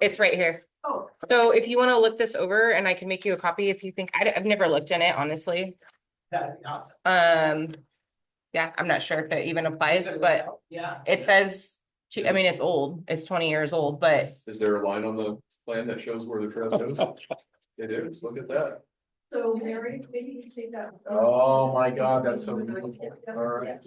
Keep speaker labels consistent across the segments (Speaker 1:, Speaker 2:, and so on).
Speaker 1: It's right here.
Speaker 2: Oh,
Speaker 1: So if you want to look this over and I can make you a copy if you think, I, have never looked in it, honestly.
Speaker 2: that'd be awesome.
Speaker 1: Um, yeah, I'm not sure if it even applies, but
Speaker 2: Yeah.
Speaker 1: it says, two- I mean, it's old, it's twenty years old, but
Speaker 3: Is there a line on the plan that shows where the trail goes? It is, look at that.
Speaker 2: So Mary, maybe you take that.
Speaker 3: Oh, my God, that's so beautiful. All right.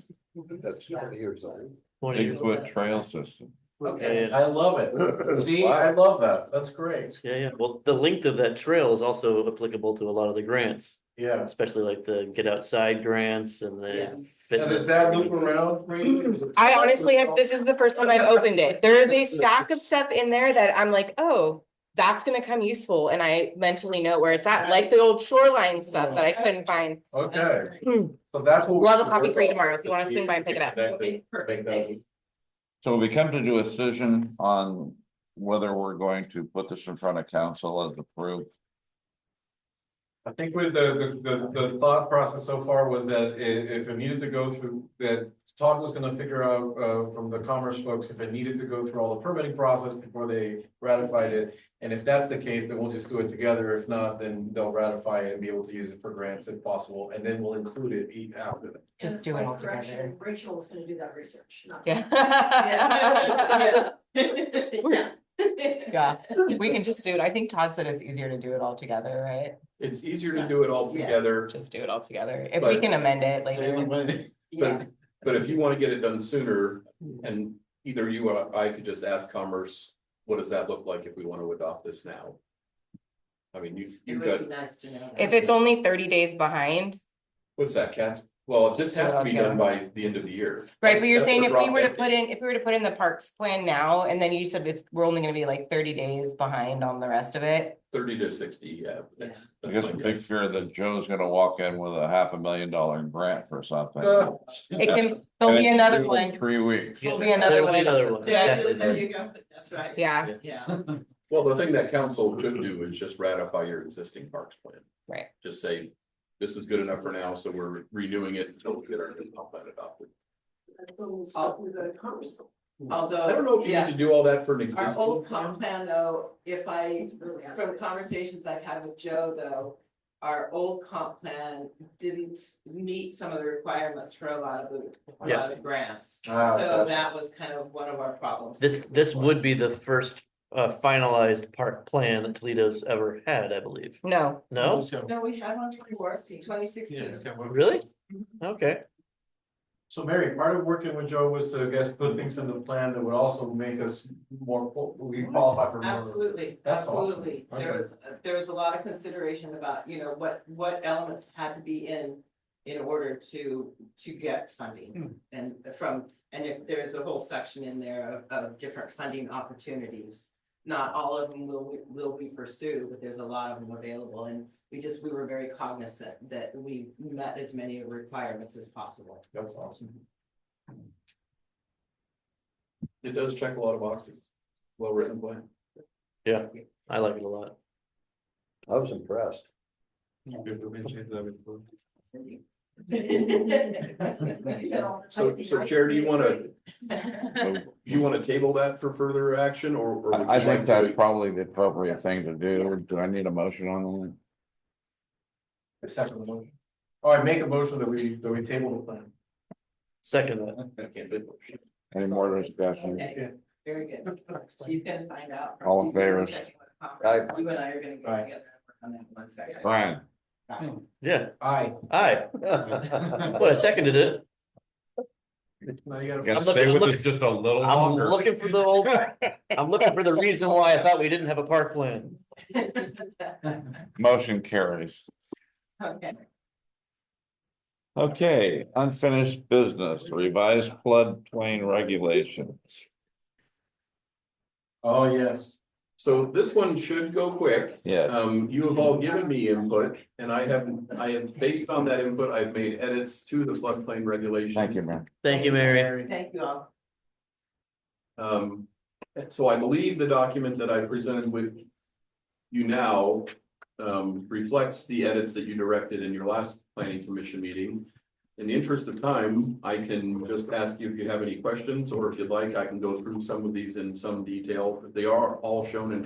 Speaker 3: That's
Speaker 2: Mm-hmm. Yeah.
Speaker 3: years old.
Speaker 2: years.
Speaker 4: Bigfoot trail system.
Speaker 3: Okay, I love it. See, I
Speaker 4: Wow.
Speaker 3: love that. That's great.
Speaker 5: Yeah, yeah. Well, the length of that trail is also applicable to a lot of the grants,
Speaker 3: Yeah.
Speaker 5: especially like the get outside grants and the.
Speaker 2: Yes.
Speaker 3: And
Speaker 5: fitness
Speaker 3: does that loop around? Randy? Is it-
Speaker 1: I honestly have, this is the first time I've opened it. There is a stack of stuff in there that I'm like, oh, that's gonna come useful, and I mentally know where it's at, like the old shoreline stuff that I couldn't find.
Speaker 3: Okay, so that's what.
Speaker 1: We'll have a
Speaker 3: we're
Speaker 1: copy for you
Speaker 3: working on,
Speaker 1: tomorrow if you wanna
Speaker 3: see
Speaker 1: swing by and
Speaker 3: we
Speaker 1: pick it up.
Speaker 3: can connect it, make that-
Speaker 4: So we come to do a decision on whether we're going to put this in front of council as approved.
Speaker 3: I think with the, the, the, the thought process so far was that i- if it needed to go through, that Todd was gonna figure out, uh, from the commerce folks, if it needed to go through all the permitting process before they ratified it. And if that's the case, then we'll just do it together. If not, then they'll ratify it and be able to use it for grants if possible, and then we'll include it e- after that.
Speaker 1: Just do it all together.
Speaker 2: Rachel is gonna do that research. not-
Speaker 1: Yeah.
Speaker 2: Yes.
Speaker 1: Yeah, we can just do it. I think Todd said it's easier to do it all together, right?
Speaker 3: It's easier to do it all
Speaker 2: Yes.
Speaker 3: together,
Speaker 1: Just do it all together. If we
Speaker 3: But-
Speaker 1: can amend it later.
Speaker 2: Yeah.
Speaker 3: but, but if you wanna get it done sooner, and either you or I could just ask Commerce, what does that look like if we wanna adopt this now? I mean, you,
Speaker 2: It
Speaker 3: you've
Speaker 2: would
Speaker 3: got,
Speaker 2: be nice to know.
Speaker 1: If it's only thirty days behind,
Speaker 3: what's that, Kath? Well, it just has to be done by the end of the year.
Speaker 1: right? But you're
Speaker 3: That's-
Speaker 1: saying
Speaker 3: that's
Speaker 1: if
Speaker 3: the
Speaker 1: we were to
Speaker 3: drop
Speaker 1: put
Speaker 3: dead
Speaker 1: in, if we were to put in the parks plan now, and then you said it's, we're only gonna be like thirty days behind on the rest of it.
Speaker 3: date, Thirty to sixty, yeah, that's.
Speaker 4: I
Speaker 3: that's
Speaker 4: guess the
Speaker 3: my
Speaker 4: big
Speaker 3: guess.
Speaker 4: fear that Joe's gonna walk in with a half a million dollar grant for something.
Speaker 3: Uh,
Speaker 1: It can, there'll be
Speaker 4: And it's
Speaker 1: another
Speaker 4: due in
Speaker 1: one.
Speaker 4: Three weeks.
Speaker 1: It'll be
Speaker 5: There'll
Speaker 1: another one.
Speaker 5: Another one.
Speaker 2: Yeah,
Speaker 5: exactly.
Speaker 2: there you go, that's right.
Speaker 1: Yeah,
Speaker 2: Yeah.
Speaker 3: Well, the thing that council could do is just ratify your existing parks plan.
Speaker 1: Right.
Speaker 3: Just say, this is good enough for now, so we're renewing it until we get our new comp plan adopted.
Speaker 1: Uh,
Speaker 3: I don't know
Speaker 2: Although,
Speaker 3: if you need
Speaker 2: yeah,
Speaker 3: to do all that for an
Speaker 2: our
Speaker 3: existing
Speaker 2: old
Speaker 3: plan.
Speaker 2: comp plan though, if I, from conversations I've had with Joe though, our old comp plan didn't meet some of the requirements for a lot of the, a lot of
Speaker 5: Yes.
Speaker 2: the grants.
Speaker 3: Ah,
Speaker 2: So
Speaker 3: gotcha.
Speaker 2: that was kind of one of our problems.
Speaker 5: This, this would be the first uh finalized park plan that Toledo's ever had, I believe.
Speaker 1: no,
Speaker 5: No,
Speaker 2: No, we had one before, 2016.
Speaker 5: really? Okay,
Speaker 3: So Mary, part of working with Joe was to, I guess, put things in the plan that would also make us more, qual- we qualify for more.
Speaker 2: Absolutely,
Speaker 3: That's awesome.
Speaker 2: absolutely. There
Speaker 3: Okay.
Speaker 2: was, there was a lot of consideration about, you know, what, what elements had to be in. In order to, to get
Speaker 3: Hmm.
Speaker 2: funding and from, and if there's a whole section in there of, of different funding opportunities. Not all of them will, we will we pursue, but there's a lot of them available and we just, we were very cognizant that we met as many requirements as possible.
Speaker 3: That's awesome. It does check a lot of boxes. Well-written plan.
Speaker 5: I like it a lot.
Speaker 6: I was impressed.
Speaker 3: So, so Chair, do you wanna, you wanna table that for further action or? or would
Speaker 4: I, I
Speaker 3: you
Speaker 4: think
Speaker 3: like
Speaker 4: that's
Speaker 3: to-
Speaker 4: probably the appropriate thing to do. Do I need a motion on
Speaker 3: Second the motion. All right, make a motion that we, that we table the plan.
Speaker 5: Second that.
Speaker 4: that? Any more discussion?
Speaker 2: Okay, very good. So you can find out.
Speaker 4: All in favor?
Speaker 6: Aye.
Speaker 2: You and I are gonna
Speaker 3: Aye.
Speaker 2: get together and work on that one second.
Speaker 4: Brian,
Speaker 5: Yeah,
Speaker 3: Aye.
Speaker 5: aye. Well, I seconded it.
Speaker 3: Now you gotta.
Speaker 5: Gotta stay with it
Speaker 4: just a little
Speaker 5: I'm looking for the old, I'm looking for the reason why I thought we didn't have a park plan.
Speaker 4: Motion carries.
Speaker 2: Okay.
Speaker 4: Okay, unfinished business, revised floodplain regulations.
Speaker 3: Oh, yes. So this one should go quick.
Speaker 4: Yes,
Speaker 3: Um, you have all given me input and I have, I have, based on that input, I've made edits to the floodplain regulations.
Speaker 4: thank you, man.
Speaker 5: Thank you, Mary.
Speaker 2: Thank you all.
Speaker 3: Um, so I believe the document that I presented with you now um, reflects the edits that you directed in your last planning commission meeting. In the interest of time, I can just ask you if you have any questions, or if you'd like, I can go through some of these in some detail. They are all shown in